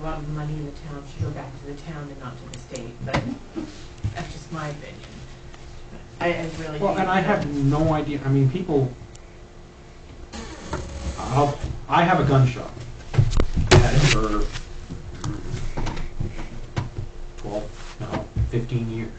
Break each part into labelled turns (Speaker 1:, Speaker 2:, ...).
Speaker 1: a lot of money in the town should go back to the town and not to the state, but that's just my opinion. I, I really.
Speaker 2: Well,
Speaker 1: hate
Speaker 2: and I
Speaker 1: that.
Speaker 2: have no idea, I mean, people, I'll, I have a gun shop. I've Had it for twelve, no, fifteen years.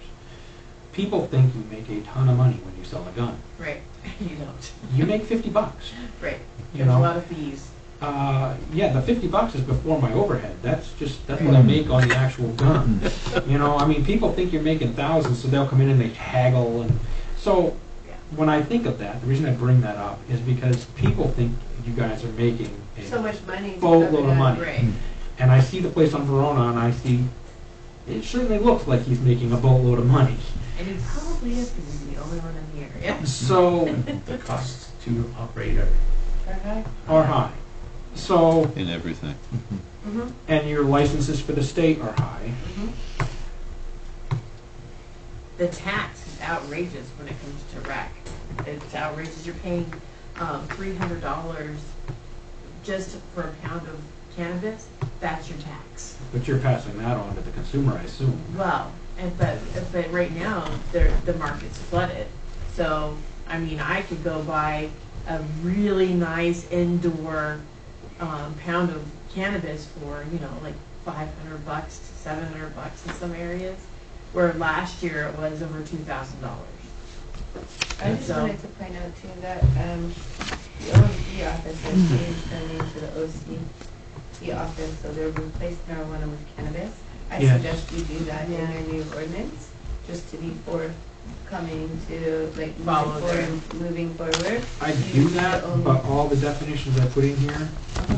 Speaker 2: People think you make a ton of money when you sell a gun.
Speaker 1: Right, you don't,
Speaker 2: You make fifty bucks.
Speaker 1: right.
Speaker 2: You
Speaker 1: There's a
Speaker 2: know.
Speaker 1: lot of fees.
Speaker 2: Uh, yeah, the fifty bucks is before my overhead. That's just, that's what I make on the actual gun. You know, I mean, people think you're making thousands, so they'll come in and they haggle and, so,
Speaker 1: Yeah.
Speaker 2: when I think of that, the reason I bring that up is because people think you guys are making a
Speaker 1: So much money. and
Speaker 2: Boatload of
Speaker 1: stuff, yeah,
Speaker 2: money.
Speaker 1: Right,
Speaker 2: And I see the place on Verona and I see, it certainly looks like he's making a boatload of money.
Speaker 1: and he probably is because he's the only one in the area.
Speaker 2: So,
Speaker 3: The costs to operate are
Speaker 1: Okay.
Speaker 2: are high. So,
Speaker 4: in everything.
Speaker 1: Mm-hmm,
Speaker 2: and your licenses for the state are high.
Speaker 1: mm-hmm. The tax is outrageous when it comes to rec. It's outrageous, you're paying, um, three hundred dollars just for a pound of cannabis, that's your tax.
Speaker 2: But you're passing that on to the consumer, I assume.
Speaker 1: Well, and but but right now there the market's flooded. So I mean I could go buy a really nice indoor um, pound of cannabis for, you know, like five hundred bucks to seven hundred bucks in some areas, where last year it was over two thousand dollars.
Speaker 5: I just
Speaker 1: So-
Speaker 5: wanted to point out too that, um, the OSD office has changed their name to the OCD office, so they've replaced marijuana with cannabis. I
Speaker 2: Yes.
Speaker 5: suggest you do that in
Speaker 1: Yeah.
Speaker 5: your new ordinance, just to be forthcoming to, like,
Speaker 1: Follow
Speaker 5: moving forward, moving forward.
Speaker 2: I do that, but all the definitions I put in here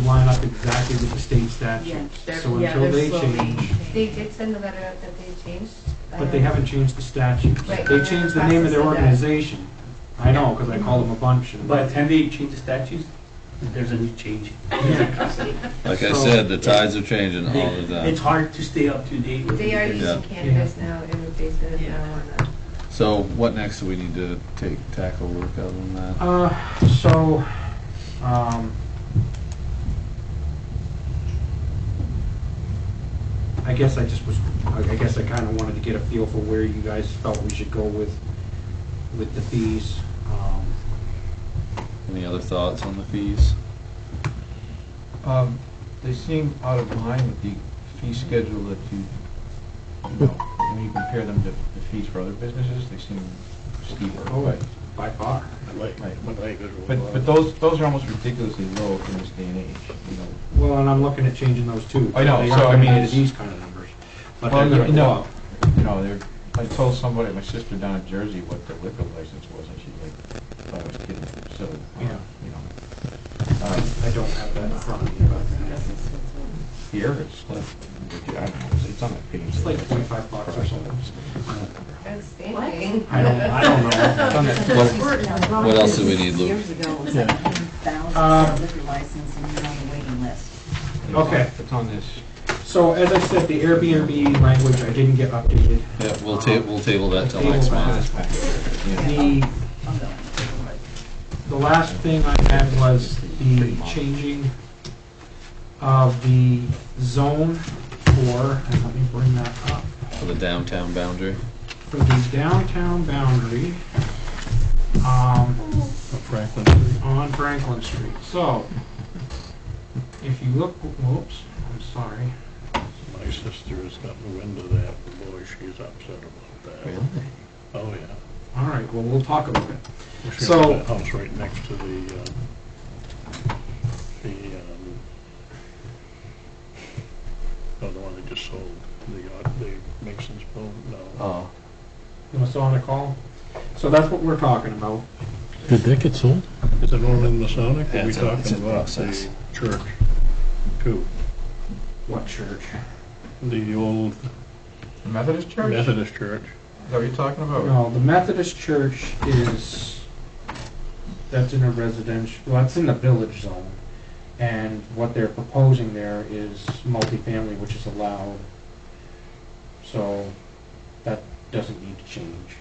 Speaker 2: line up exactly with the state statutes.
Speaker 1: They're-
Speaker 2: So
Speaker 1: yeah,
Speaker 2: until
Speaker 1: they're
Speaker 2: they
Speaker 1: slowly
Speaker 2: change,
Speaker 5: They
Speaker 1: changing.
Speaker 5: did send a letter out that they changed.
Speaker 2: but they haven't changed the statutes.
Speaker 5: Right,
Speaker 2: They
Speaker 5: they're
Speaker 2: changed
Speaker 5: in
Speaker 2: the
Speaker 5: the
Speaker 2: name of their
Speaker 5: process of that.
Speaker 2: organization. I know, because I called them a bunch. and-
Speaker 3: By the time they change the statutes, there's a new change.
Speaker 2: Yeah.
Speaker 4: Like I
Speaker 2: So-
Speaker 4: said, the tides are changing all the
Speaker 3: It's
Speaker 4: time.
Speaker 3: hard to stay up to date with.
Speaker 5: um, They are
Speaker 3: everything.
Speaker 5: using cannabis now in replacement of uh,
Speaker 1: Yeah.
Speaker 5: marijuana.
Speaker 4: So what next do we need to take, tackle work other than that?
Speaker 2: Uh, so, um, I guess I just was, I I guess I kind of wanted to get a feel for where you guys felt we should go with, with the fees. Um,
Speaker 4: Any other thoughts on the fees?
Speaker 6: Um, They seem out of line with the fee schedule that you, you know, when you compare them to the fees for other businesses, they seem steeper.
Speaker 2: Oh, by far.
Speaker 6: But, but those, those are almost ridiculously low in this day and age, you know.
Speaker 2: Well, and I'm looking at changing those too.
Speaker 6: I know,
Speaker 2: They
Speaker 6: so,
Speaker 2: aren't
Speaker 6: I
Speaker 2: gonna
Speaker 6: mean,
Speaker 2: be
Speaker 6: it's-
Speaker 2: These kind of numbers, but
Speaker 6: Well,
Speaker 2: they're gonna go
Speaker 6: you know,
Speaker 2: up.
Speaker 6: You know, they're, I told somebody, my sister down in Jersey, what the liquor license was, and she like, thought I was kidding, so, uh,
Speaker 2: Yeah.
Speaker 6: you know. Uh,
Speaker 2: I don't have that in front of me, but
Speaker 1: That's expensive.
Speaker 6: Here, it's like, I don't know, it's on that page.
Speaker 2: it's like twenty-five bucks or something.
Speaker 5: Outstanding.
Speaker 2: I don't, I don't know.
Speaker 6: It's on that-
Speaker 4: What, what else do we need, Lou?
Speaker 7: Years ago, it was like
Speaker 2: Um,
Speaker 7: 10,000 liquor license and you're on the waiting list.
Speaker 6: it's on-
Speaker 2: Okay.
Speaker 6: It's on this.
Speaker 2: So as I said, the Airbnb language I didn't get updated.
Speaker 4: Yeah, we'll ta, we'll table that till
Speaker 2: Table
Speaker 4: next
Speaker 2: that.
Speaker 4: month.
Speaker 6: Yeah.
Speaker 2: The,
Speaker 7: I'm going.
Speaker 2: the last thing I had was the changing of the zone for, and let me bring that up,
Speaker 4: For the downtown boundary,
Speaker 2: for the downtown boundary, um,
Speaker 6: Franklin.
Speaker 2: on Franklin Street. So, if you look, whoops, I'm sorry.
Speaker 8: My sister has gotten wind of that, and boy, she's upset about that. Oh, yeah.
Speaker 2: All right, well, we'll talk about it.
Speaker 8: She
Speaker 2: So-
Speaker 8: owns that house right next to the, um, the, um, oh, the one they just sold, the, uh, the Mason's Bone, no.
Speaker 4: oh,
Speaker 2: You want us on a call? So that's what we're talking about.
Speaker 9: Did that get sold?
Speaker 8: Is it Northern Masonic? Are we
Speaker 4: That's a- it's
Speaker 8: talking
Speaker 4: a
Speaker 8: about
Speaker 4: process.
Speaker 8: the church? Too.
Speaker 2: What church?
Speaker 8: The old
Speaker 6: Methodist Church?
Speaker 8: Methodist church.
Speaker 6: Is that what you're talking about?
Speaker 2: No, the Methodist church is, that's in a residential, well, that's in the village zone. And what they're proposing there is multifamily, which is allowed. So that doesn't need to change.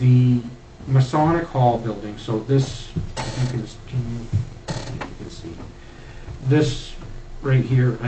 Speaker 2: The Masonic Hall building, so this, you can, can you, yeah, you can see. This right here, I